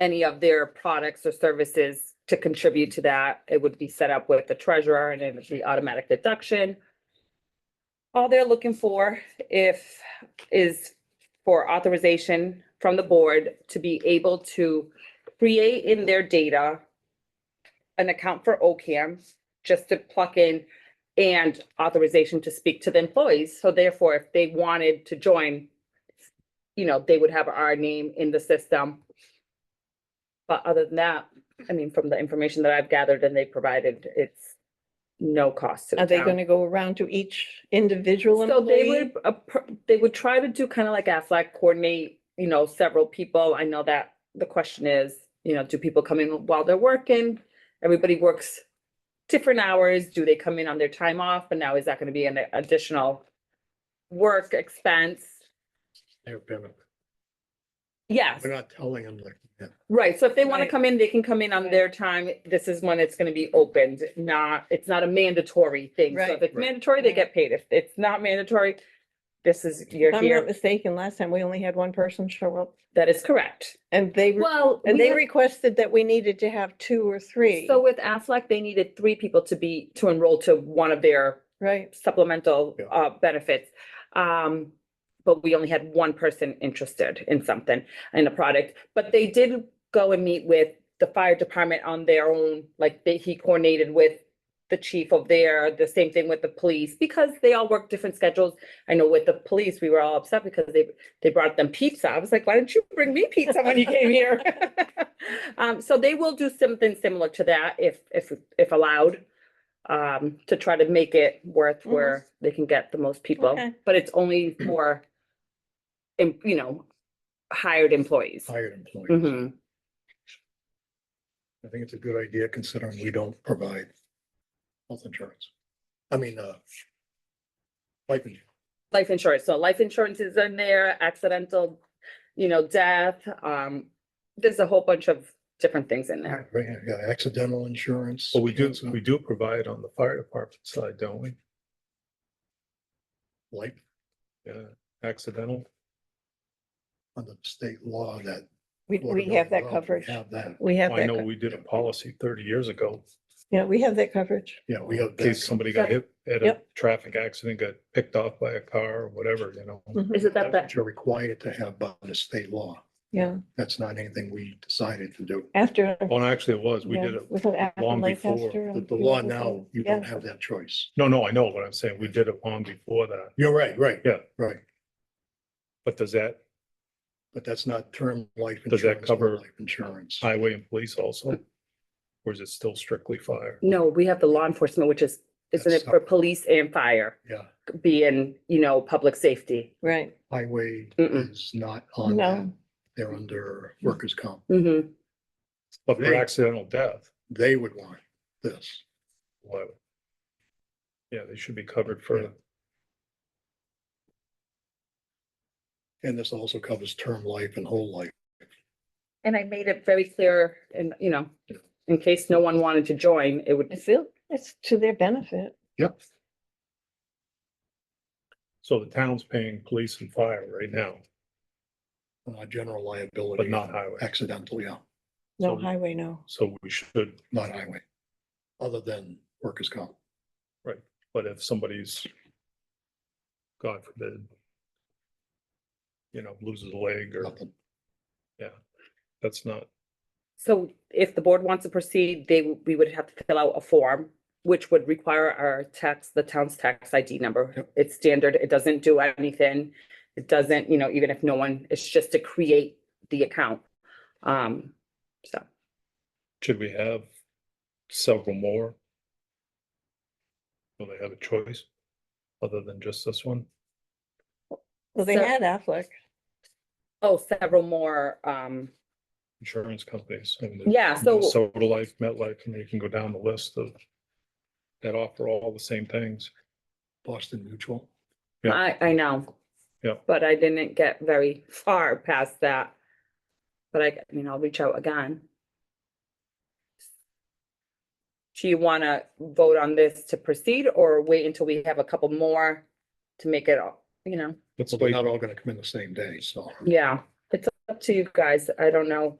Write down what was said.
any of their products or services to contribute to that. It would be set up with the treasurer and it would be automatic deduction. All they're looking for if, is for authorization from the board to be able to create in their data an account for OCAM, just to pluck in and authorization to speak to the employees. So therefore, if they wanted to join, you know, they would have our name in the system. But other than that, I mean, from the information that I've gathered and they provided, it's no cost to the Are they town. gonna go around to each individual So they employee? would, appro- they would try to do kind of like Aflac, coordinate, you know, several people. I know that the question is, you know, do people come in while they're working? Everybody works different hours. Do they come in on their time off? But now is that gonna be an additional work expense? They're payment. Yes, We're not telling them like, yeah. right. So if they wanna Right. come in, they can come in on Right. their time. This is when it's gonna be opened, not, it's not a mandatory thing. So if Right. it's Right. mandatory, they Right. get paid. If it's not mandatory, this is, If you're I'm not here. mistaken, last time we only had one person show up That is correct. and they, re- Well, and we they have- requested that we needed to have two or three, So with Aflac, they needed three people to be, to enroll to one of their right? supplemental Yeah. uh benefits. Um, but we only had one person interested in something, in a product. But they did go and meet with the fire department on their own, like they, he coordinated with the chief of there, the same thing with the police, because they all work different schedules. I know with the police, we were all upset because they, they brought them pizza. I was like, why didn't you bring me pizza when you came here? Um, so they will do something similar to that if, if, if allowed, um, to try to make it worth Mhm. where they can get the most people. Okay. But it's only for, em- you know, hired employees. hired employees. Mm-hmm. Mhm. I think it's a good idea considering we don't provide health insurance. I mean, uh, life insurance. Life insurance, so life insurance is in there, accidental, you know, death, um, there's a whole bunch of different things in there. Right, yeah, accidental insurance. Well, we do, cancer, we do provide on the fire department side, don't we? Like Yeah, accidental. under state law that. We, we Florida have that law, we coverage. Have that. We have I that, know co- we did a policy thirty years ago, yeah, we have that coverage. Yeah, we in have. case somebody got hit at a Yep. traffic accident, got picked off by a car or whatever, you know? Mhm. Is it that, that, You're required to have by the state law. Yeah, That's not anything we decided to do. after. Well, Oh, actually, it was, we yeah, did it, was it after long before Lancaster The and the law Peterson? now, you Yeah. don't have that choice. no, no, I know what I'm saying, we did it long before that, You're right, right. Yeah. Right, but does that but that's not term life. Does that insurance or cover- Life insurance. highway and police also? Or is it still strictly fire? no, we have the law enforcement, which is, isn't That's it for police and fire, Yeah, being, you know, public safety? Right, highway Mm-mm. is not on that. no, They're under workers' comp. hmm But for Right. accidental death, They would want this. why? Yeah, they should be covered for, Yeah. And this also covers term life and whole life. And I made it very clear and, you know, in case no one wanted to join, it I would, feel it's to their benefit. Yep. so the town's paying police and fire right now. Uh, general liability. But not highway. Accidental, yeah, No So- highway, no. So we should, not highway. Other than workers' comp. but if somebody's, God forbid, you know, loses a leg or Nothing. that's not, so if the board wants to proceed, they, w- we would have to fill out a form, which would require our tax, the town's tax ID number. Yep. It's standard. It doesn't do anything. It doesn't, you know, even if no one, it's just to create the account. Um, so should we have several more? Will they have a choice other than just this one? Well, they So- had Affleck. Oh, several more, um, Insurance companies. and the- yeah, so, Minnesota Life, MetLife, and you can go down the list of that offer all the same things. Boston Mutual. yeah. I, I know. Yeah. But I didn't get very far past that. But I, I mean, I'll reach out again. Do you wanna vote on this to proceed or wait until we have a couple more to make it all, you know? Let's Well, they're wait not all gonna come in the same day, so. Yeah, it's up to you guys. I don't know.